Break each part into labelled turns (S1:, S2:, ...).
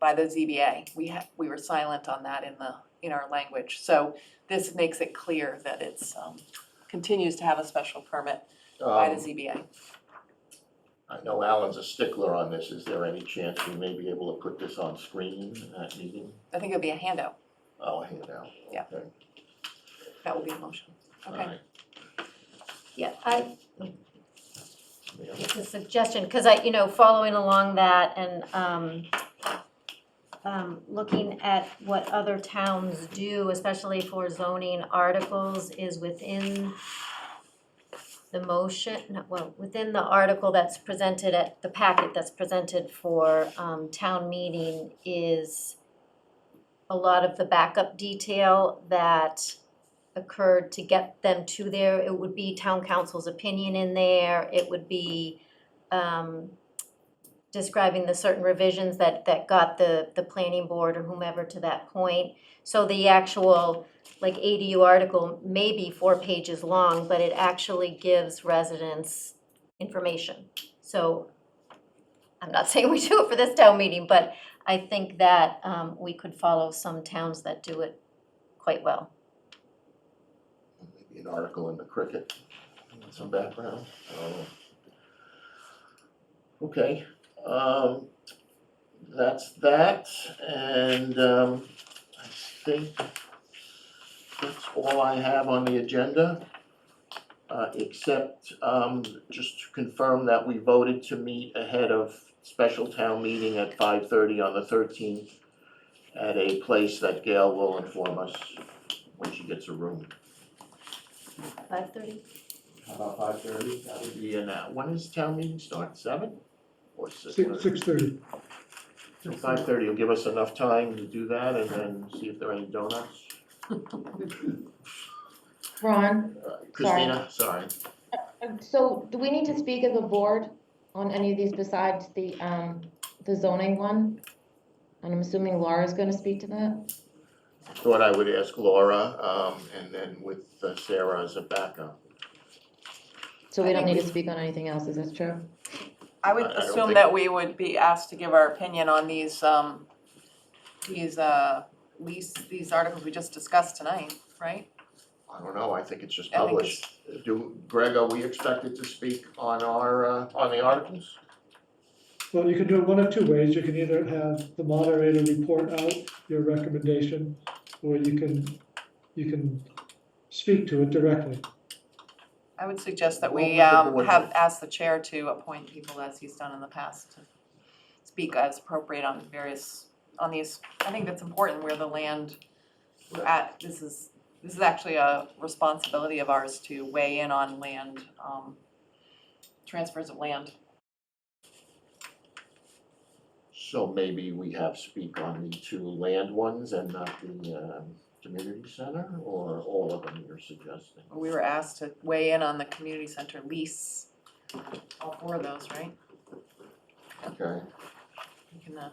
S1: by the ZBA. We ha we were silent on that in the, in our language. So this makes it clear that it's, um, continues to have a special permit by the
S2: Um,
S1: ZBA.
S2: I know Alan's a stickler on this. Is there any chance we may be able to put this on screen at meeting?
S1: I think it'd be a handout.
S2: I'll hand out.
S1: Yeah.
S2: Okay,
S1: That would be a motion.
S2: all
S1: Okay.
S2: right.
S3: Yeah, I,
S2: Yeah.
S3: it's a suggestion, because I, you know, following along that and, um, um, looking at what other towns do, especially for zoning articles, is within the motion, no, well, within the article that's presented at, the packet that's presented for, um, town meeting is a lot of the backup detail that occurred to get them to there, it would be town council's opinion in there, it would be um describing the certain revisions that that got the the planning board or whomever to that point. So the actual like ADU article may be four pages long, but it actually gives residents information. So I'm not saying we do it for this town meeting, but I think that um we could follow some towns that do it quite well.
S2: Maybe an article in the cricket, some background, I don't know. Okay, um, that's that, and, um, I think that's all I have on the agenda. Uh, except, um, just to confirm that we voted to meet ahead of special town meeting at five thirty on the thirteenth at a place that Gail will inform us when she gets a room.
S3: Five thirty?
S2: How About five thirty, that would be an hour. When does town meeting start, seven? Or six?
S4: Six, six thirty.
S2: Five thirty will give us enough time to do that and then see if there are any donuts.
S5: Ron,
S2: Uh, Christina, sorry.
S5: um, so do we need to speak as a board on any of these besides the, um, the zoning one? And I'm assuming Laura's gonna speak to that?
S2: Thought I would ask Laura, um, and then with uh, Sarah as a backup.
S5: So we
S1: I
S5: don't
S1: think
S5: need to speak on anything else, is that true?
S1: I would
S2: I- I don't
S1: assume
S2: think-
S1: that we would be asked to give our opinion on these, um, these, uh, lease, these articles we just discussed tonight, right?
S2: I don't know, I think it's just
S1: I think
S2: published. Do, Greg, are we expected to speak on our, uh, on the articles?
S4: Well, you can do it one of two ways. You can either have the moderator report out your recommendation, or you can, you can speak to it directly.
S1: I would suggest that
S2: Well,
S1: we,
S2: let the
S1: um,
S2: board
S1: have
S2: vote.
S1: asked the chair to appoint people as he's done in the past to speak as appropriate on various, on these, I think that's important where the land we're at, this is, this is actually a responsibility of ours to weigh in on land, um, transfers of land.
S2: So maybe we have speak on the two land ones and not the, um, community center, or all of them you're suggesting?
S1: We were asked to weigh in on the community center lease, all four of those, right?
S2: Okay.
S1: You can, uh,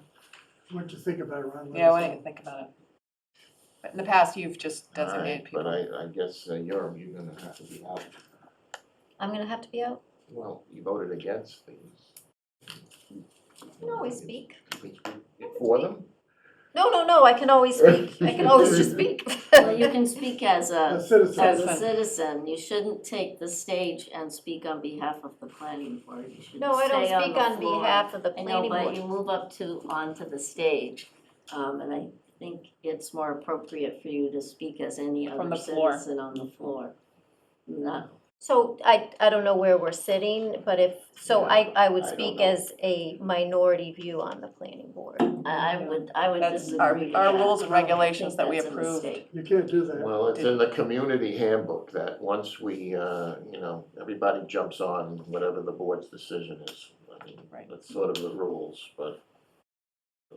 S6: What you think about it, Ron?
S1: yeah, why don't you think about it? But in the past, you've just
S2: All right,
S1: designated people.
S2: But I, I guess uh, you're, you're gonna have to be out,
S3: I'm gonna have to be out?
S2: well, you voted against these.
S3: I can always speak.
S2: For them?
S3: No, no, no, I can always speak, I can always just speak.
S7: Well, you can speak as
S6: A
S7: a,
S6: citizen,
S7: as a
S1: Citizen.
S7: citizen, you shouldn't take the stage and speak on behalf of the planning board, you should stay
S3: No, I
S7: on
S3: don't
S7: the
S3: speak on
S7: floor.
S3: behalf of the
S7: I know,
S3: planning
S7: but you
S3: board.
S7: move up to, onto the stage, um, and I think it's more appropriate for you to speak as any
S1: From
S7: other
S1: the floor.
S7: citizen on the floor. Not,
S3: So I, I don't know where we're sitting, but if, so I, I would
S2: I don't
S3: speak
S2: know.
S3: as a minority view on the planning board.
S7: I, I would, I would
S1: That's
S7: disagree
S1: our,
S7: with
S1: our
S7: that.
S1: rules and
S7: I think
S1: regulations that we
S7: that's a
S1: approved.
S7: mistake.
S6: you can't do that.
S2: Well, it's in the community handbook that once we, uh, you know, everybody jumps on whatever the board's decision is. I mean,
S1: Right.
S2: that's sort of the rules, but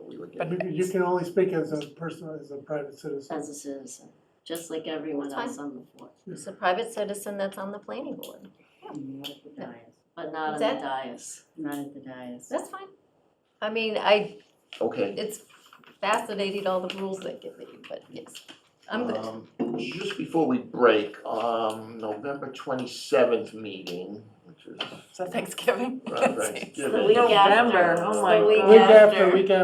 S2: we would
S1: But-
S2: get,
S6: You can- You can only speak as a person, as a private citizen.
S7: As a citizen, just like everyone
S3: That's fine.
S7: else on the floor,
S3: It's a private citizen that's on the planning board.
S8: Not at the dais,
S7: but not on the
S3: That-
S7: dais.
S8: not at the dais.
S3: That's fine. I mean, I,
S2: okay.
S3: it's fascinating, all the rules they give me, but yes, I'm good.
S2: Um, Just before we break, um, November twenty-seventh meeting, which is
S1: So Thanksgiving.
S2: around Thanksgiving.
S7: week after.
S2: November,
S7: oh my
S2: uh,
S7: God.
S6: Week after, week after.